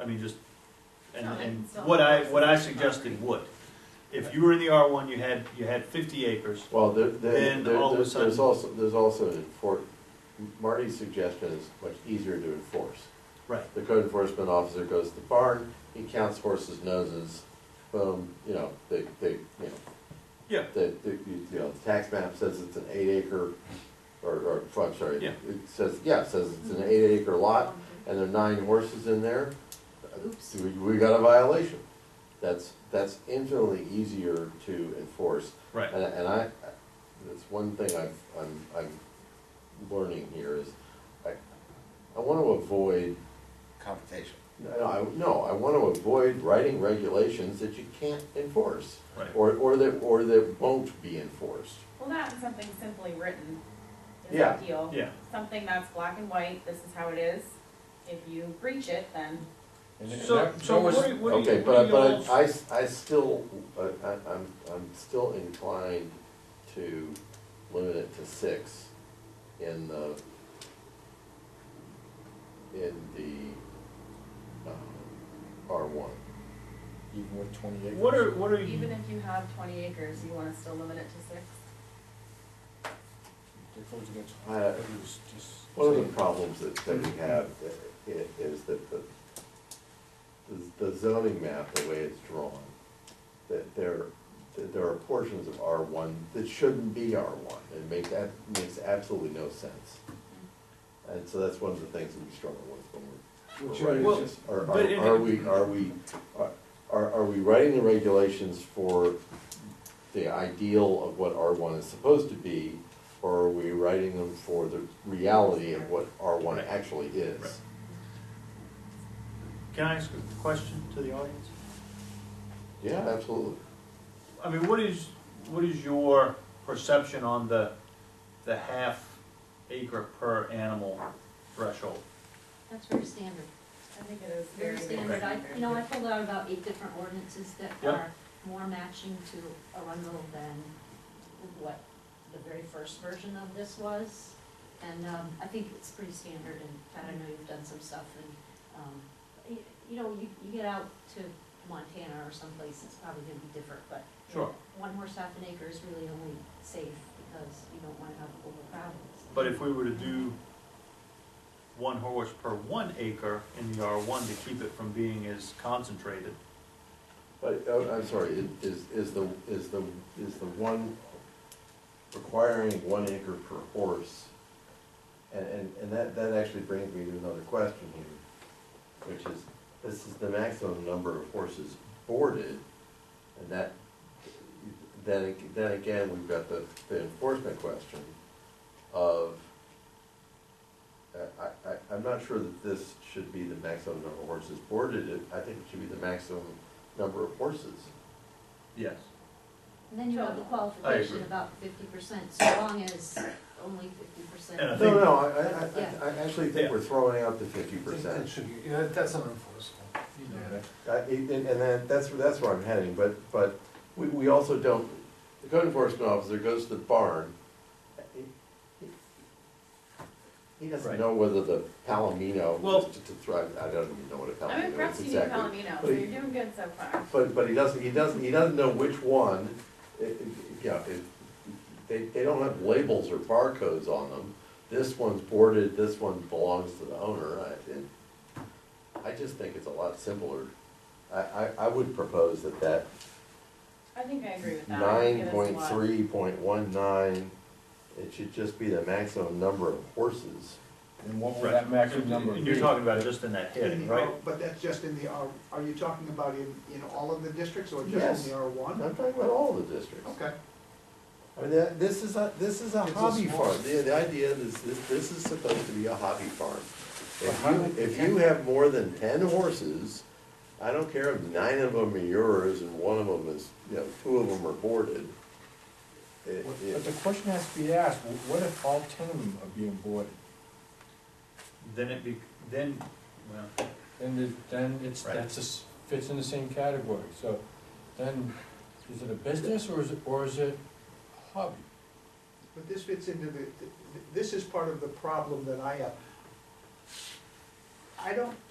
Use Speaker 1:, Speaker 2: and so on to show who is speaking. Speaker 1: I mean, just, and,
Speaker 2: No,
Speaker 1: and
Speaker 2: it's not-
Speaker 1: what I, what I suggested would. If you were in the R one, you had, you had fifty acres,
Speaker 3: Well, there,
Speaker 1: Then
Speaker 3: there, there-
Speaker 1: all of a
Speaker 3: there's, there's
Speaker 1: sudden-
Speaker 3: also, there's also an enfor, Marty's suggestion is much easier to enforce.
Speaker 1: right,
Speaker 3: The code enforcement officer goes to the barn, he counts horses' noses, boom, you know, they, they, you know,
Speaker 1: yeah,
Speaker 3: the, the, you know, the tax map says it's an eight acre, or, or, I'm sorry.
Speaker 1: Yeah.
Speaker 3: It says, yeah, it says it's an eight acre lot, and there are nine horses in there,
Speaker 2: Oops.
Speaker 3: we, we got a violation. That's, that's infinitely easier to enforce.
Speaker 1: right.
Speaker 3: And, and I, that's one thing I've, I'm, I'm learning here is, I, I wanna avoid,
Speaker 4: confrontation.
Speaker 3: no, I, no, I wanna avoid writing regulations that you can't enforce.
Speaker 1: Right.
Speaker 3: Or, or that, or that won't be enforced.
Speaker 2: Well, not something simply written is
Speaker 3: Yeah,
Speaker 2: ideal.
Speaker 1: yeah.
Speaker 2: Something that's black and white, this is how it is. If you breach it, then
Speaker 4: And it-
Speaker 1: So,
Speaker 4: that-
Speaker 1: so
Speaker 4: that was-
Speaker 1: what do you, what do
Speaker 3: Okay,
Speaker 1: you, what
Speaker 3: but,
Speaker 1: do
Speaker 3: but
Speaker 1: y'all's-
Speaker 3: I, s- I still, I- I, I'm, I'm still inclined to limit it to six in the, in the, uh, R one.
Speaker 4: Even with twenty acres.
Speaker 1: what are, what are
Speaker 2: even
Speaker 1: you,
Speaker 2: if you have twenty acres, you wanna still limit it to six?
Speaker 4: They're close against-
Speaker 3: I-
Speaker 4: it was just-
Speaker 3: One of the problems that, that we have i- i- is that the, the- the zoning map, the way it's drawn, that there, that there are portions of R one that shouldn't be R one, it makes, ab- makes absolutely no sense. And so that's one of the things that we struggle with when
Speaker 5: Which
Speaker 3: we're- we're.
Speaker 1: Well,
Speaker 3: writing this. Are,
Speaker 1: but in-
Speaker 3: are, are we, are we, are- are, are we writing the regulations for the ideal of what R one is supposed to be? Or are we writing them for the reality of what R one
Speaker 1: Right.
Speaker 3: actually
Speaker 1: Right.
Speaker 3: is?
Speaker 1: can I ask a question to the audience?
Speaker 3: Yeah, absolutely.
Speaker 1: I mean, what is, what is your perception on the, the half acre per animal threshold?
Speaker 6: That's very standard,
Speaker 2: I think it is very.
Speaker 6: very standard. I, you know, I pulled out about eight different ordinances that
Speaker 1: Yeah.
Speaker 6: are more matching to Arundel than what the very first version of this was. And, um, I think it's pretty standard, and Pat, I know you've done some stuff, and, um, you, you know, you, you get out to Montana or someplace, it's probably gonna be different, but. you know,
Speaker 1: Sure.
Speaker 6: One horse half an acre is really only safe because you don't wanna have overcrowdings.
Speaker 1: But if we were to do one horse per one acre in the R one to keep it from being as concentrated,
Speaker 3: But, oh, I'm sorry, i- is, is the, is the, is the one requiring one acre per horse? And, and, and that, that actually brings me to another question here, which is, this is the maximum number of horses boarded, and that, then, ag- then again, we've got the, the enforcement question of, I, I- I, I'm not sure that this should be the maximum number of horses boarded, It- I think it should be the maximum number of horses.
Speaker 1: yes.
Speaker 6: And then you have the qualification about fifty percent, so long as only fifty percent.
Speaker 1: And I
Speaker 3: No,
Speaker 1: think-
Speaker 3: no, I, I-
Speaker 6: Yeah.
Speaker 3: I, I actually think we're throwing out the fifty
Speaker 5: I think that
Speaker 3: percent.
Speaker 5: should be- yeah, that's unenforceable. You know that.
Speaker 3: And, and that, that's, where- that's where I'm heading, but, but we, we also don't, the code enforcement officer goes to the barn. he- he- He doesn't
Speaker 1: Right.
Speaker 3: know whether the palomino,
Speaker 1: Well-
Speaker 3: just to thrive, I don't even know what a
Speaker 2: I'm
Speaker 3: palomino is
Speaker 2: impressed you knew
Speaker 3: exactly.
Speaker 2: Palomino, so
Speaker 3: But he-
Speaker 2: you're doing good so far.
Speaker 3: But, but he doesn't, he doesn't, he doesn't know which one, eh, it, it, you know, it, they, they don't have labels or barcodes on them. This one's boarded, this one belongs to the owner, I, it, I just think it's a lot simpler. I, I, I would propose that that
Speaker 2: I think I agree with that. I think it
Speaker 3: nine
Speaker 2: is
Speaker 3: point
Speaker 2: what-
Speaker 3: three point one nine, it should just be the maximum number of horses.
Speaker 4: And what would
Speaker 1: Right.
Speaker 4: that maximum number be?
Speaker 1: And you're talking about just in that heading, right?
Speaker 7: But that's just in the, R. are you talking about in, in all of the districts or
Speaker 3: Yes.
Speaker 7: just in the R
Speaker 3: I'm
Speaker 7: one?
Speaker 3: not talking about all the districts.
Speaker 7: Okay.
Speaker 3: I mean, that, this is a, this is a
Speaker 5: It's a
Speaker 3: hobby
Speaker 5: small-
Speaker 3: farm, the, the idea is, this, this is supposed to be a hobby farm.
Speaker 4: But how-
Speaker 3: If you, if you have more than ten horses, I don't care if nine of them are yours and one of them is, you know, two of them are boarded. It-
Speaker 4: But the
Speaker 3: it-
Speaker 4: question has to be asked, wh- what if all ten of them are being boarded?
Speaker 1: Then it be, then, well,
Speaker 4: Then, it- then it's,
Speaker 1: Right.
Speaker 4: that's, a s- fits in the same category, so then, is it a business or is it, or is it a hobby?
Speaker 7: But this fits into the, this is part of the problem that I have. I don't